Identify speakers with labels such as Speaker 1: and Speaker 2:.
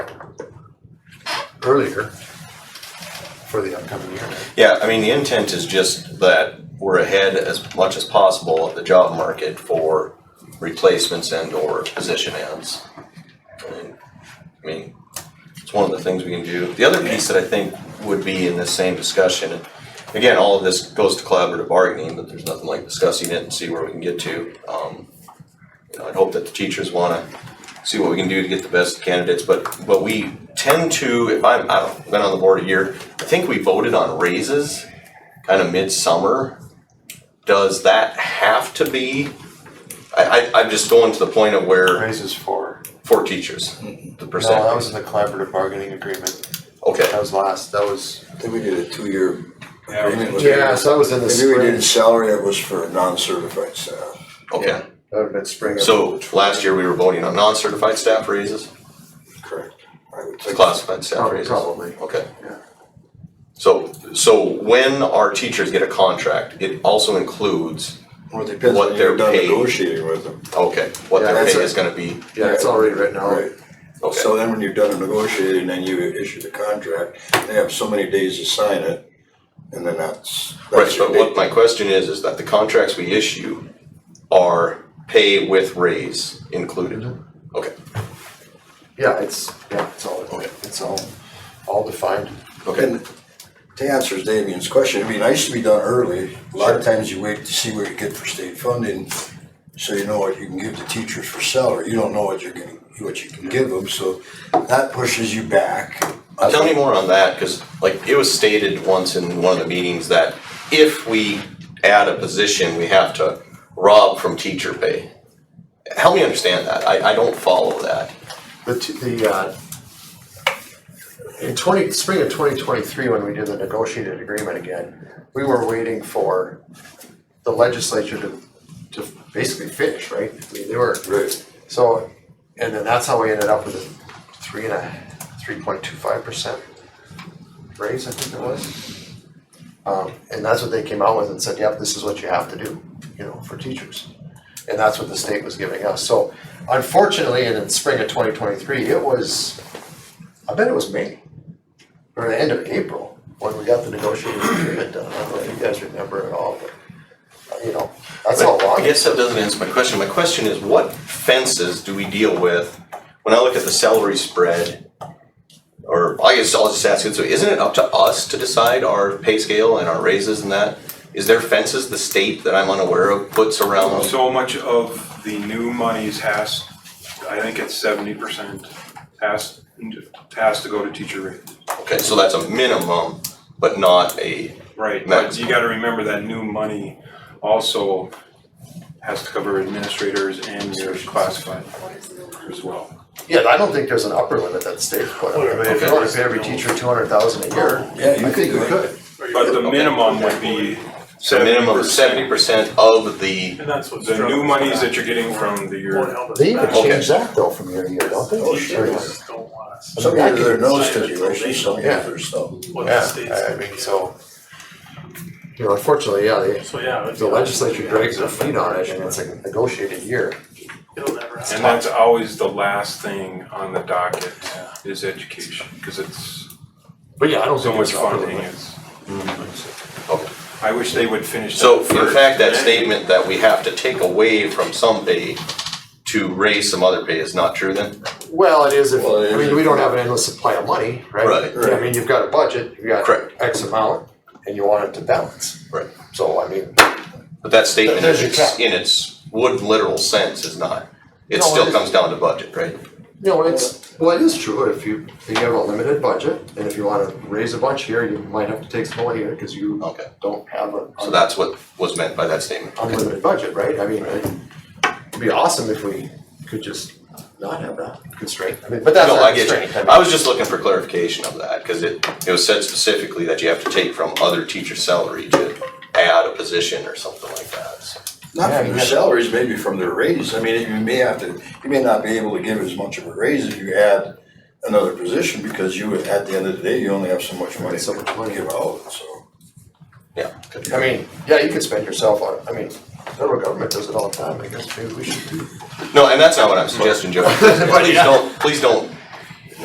Speaker 1: earlier for the upcoming year.
Speaker 2: Yeah, I mean, the intent is just that we're ahead as much as possible of the job market for replacements and or position ends. And, I mean, it's one of the things we can do. The other piece that I think would be in this same discussion, and again, all of this goes to collaborative bargaining, but there's nothing like discussing it and see where we can get to. Um, you know, I'd hope that the teachers wanna see what we can do to get the best candidates, but, but we tend to, if I'm, I've been on the board a year, I think we voted on raises kind of midsummer. Does that have to be? I, I, I'm just going to the point of where,
Speaker 1: Raises for,
Speaker 2: for teachers, the
Speaker 1: no, that was
Speaker 2: percent.
Speaker 1: in the collaborative bargaining agreement. That
Speaker 2: Okay,
Speaker 1: was last, that was.
Speaker 3: I think we did a two-year
Speaker 4: Yeah, we
Speaker 3: agreement.
Speaker 1: Yeah, so that was in the
Speaker 3: Maybe we did
Speaker 1: spring.
Speaker 3: salary that was for non-certified staff.
Speaker 2: okay.
Speaker 1: That would have been spring. of-
Speaker 2: So last year we were voting on non-certified staff raises,
Speaker 3: Correct. I would think-
Speaker 2: classified staff
Speaker 1: Prob-
Speaker 2: raises.
Speaker 1: Oh, Probably.
Speaker 2: Okay.
Speaker 1: Yeah.
Speaker 2: So, so when our teachers get a contract, it also includes,
Speaker 3: Well, it depends
Speaker 2: What
Speaker 3: when
Speaker 2: they're
Speaker 3: you're done
Speaker 2: paid.
Speaker 3: negotiating with them.
Speaker 2: okay, what
Speaker 1: Yeah,
Speaker 2: their
Speaker 1: that's
Speaker 2: pay
Speaker 1: a-
Speaker 2: is gonna be,
Speaker 1: Yeah, it's already written out.
Speaker 3: Right.
Speaker 2: okay,
Speaker 3: So then when you're done negotiating and you issue the contract, they have so many days to sign it, and then that's.
Speaker 2: right,
Speaker 3: that's your
Speaker 2: but what
Speaker 3: date.
Speaker 2: my question is, is that the contracts we issue are pay with raise included,
Speaker 1: Mm-hmm.
Speaker 2: okay,
Speaker 1: Yeah, it's, yeah, it's all, it's all, all defined.
Speaker 2: okay,
Speaker 3: And to answer Damien's question, it'd be nice to be done early. A lot of times you wait to see what you get for state funding, so you know what you can give the teachers for salary. You don't know what you're gonna, what you can give them, so that pushes you back.
Speaker 2: Uh, tell me more on that, cause like, it was stated once in one of the meetings that if we add a position, we have to rob from teacher pay. Help me understand that, I, I don't follow that,
Speaker 1: The, t- the, uh, in twenty, spring of twenty twenty-three, when we did the negotiated agreement again, we were waiting for the legislature to, to basically finish, right? I mean, they were,
Speaker 3: Right.
Speaker 1: so, and then that's how we ended up with a three and a, three point two five percent raise, I think it was. Um, and that's what they came out with and said, yep, this is what you have to do, you know, for teachers. And that's what the state was giving us. So unfortunately, and in spring of twenty twenty-three, it was, I bet it was May or the end of April when we got the negotiated agreement done. I don't know if you guys remember at all, but, uh, you know, that's how
Speaker 2: But
Speaker 1: long.
Speaker 2: I guess that doesn't answer my question. My question is, what fences do we deal with when I look at the salary spread? Or I guess I'll just ask it, so isn't it up to us to decide our pay scale and our raises and that? Is there fences the state that I'm unaware of puts around?
Speaker 4: So much of the new monies has, I think it's seventy percent, has, has to go to teacher rate.
Speaker 2: Okay, so that's a minimum, but not a,
Speaker 4: Right, but
Speaker 2: Max.
Speaker 4: you gotta remember that new money also has to cover administrators and your classified as well.
Speaker 1: Yeah, I don't think there's an upper limit that the state put. on it.
Speaker 4: Well,
Speaker 1: If you want to pay every teacher two hundred thousand a year,
Speaker 3: Oh, Yeah, you
Speaker 1: I think
Speaker 3: could do
Speaker 1: we
Speaker 3: it.
Speaker 1: could.
Speaker 4: But the
Speaker 2: Okay.
Speaker 4: minimum would be
Speaker 2: so a
Speaker 4: seventy
Speaker 2: minimum of seventy percent of the,
Speaker 5: And that's what's.
Speaker 4: The new monies that you're getting from the
Speaker 5: Won't
Speaker 4: year,
Speaker 5: help us
Speaker 1: They even
Speaker 5: back.
Speaker 2: Okay.
Speaker 1: change that though from year to year, don't they?
Speaker 3: Oh,
Speaker 5: Teachers
Speaker 3: sure.
Speaker 5: Don't want us.
Speaker 3: Some years there are no stipulations, some years there's no.
Speaker 5: What the state's
Speaker 1: Yeah, I mean, so. You know, unfortunately, yeah, they,
Speaker 5: So, yeah. it's-
Speaker 1: the legislature drags their feet on it and it's a negotiated year.
Speaker 5: It'll never happen.
Speaker 4: and that's always the last thing on the docket is education, cause it's
Speaker 1: But yeah, I don't
Speaker 4: so
Speaker 1: think
Speaker 4: much
Speaker 1: it's an upper
Speaker 4: funding
Speaker 1: limit.
Speaker 4: is.
Speaker 2: okay.
Speaker 4: I wish they would finish that
Speaker 2: So in
Speaker 4: first.
Speaker 2: fact, that statement that we have to take away from some pay to raise some other pay is not true then?
Speaker 1: Well, it is if,
Speaker 3: Well, it
Speaker 1: I
Speaker 3: is
Speaker 1: mean,
Speaker 3: if-
Speaker 1: we don't have an endless supply of money, right?
Speaker 2: Right.
Speaker 1: I mean, you've got a budget, you've got
Speaker 2: Correct.
Speaker 1: X amount and you want it to balance.
Speaker 2: Right.
Speaker 1: So I mean,
Speaker 2: But that statement
Speaker 1: There's your
Speaker 2: in its,
Speaker 1: cap.
Speaker 2: in its wood literal sense is not, it
Speaker 1: No, it
Speaker 2: still
Speaker 1: is.
Speaker 2: comes down to budget, right?
Speaker 1: No, it's, well, it is true, if you, if you have a limited budget, and if you wanna raise a bunch here, you might have to take some away here, cause you
Speaker 2: Okay.
Speaker 1: don't have a
Speaker 2: So that's what was meant by that statement. Okay.
Speaker 1: unlimited budget, right? I mean, it'd be awesome if we could just not have that constraint, I mean, but that's
Speaker 2: No,
Speaker 1: not
Speaker 2: I
Speaker 1: a
Speaker 2: get
Speaker 1: constraint.
Speaker 2: you. I was just looking for clarification of that, cause it, it was said specifically that you have to take from other teacher salary to add a position or something like that, so.
Speaker 3: Not
Speaker 1: Yeah,
Speaker 3: from
Speaker 1: you
Speaker 3: their
Speaker 1: got-
Speaker 3: salaries, maybe from their raise. I mean, you may have to, you may not be able to give as much of a raise if you add another position because you, at the end of the day, you only have so much money
Speaker 1: So much money.
Speaker 3: to give out, so.
Speaker 2: Yeah.
Speaker 1: I mean, yeah, you could spend yourself on, I mean, federal government does it all the time, I guess, maybe we should do.
Speaker 2: No, and that's not what I'm suggesting, Joe. Please don't, please don't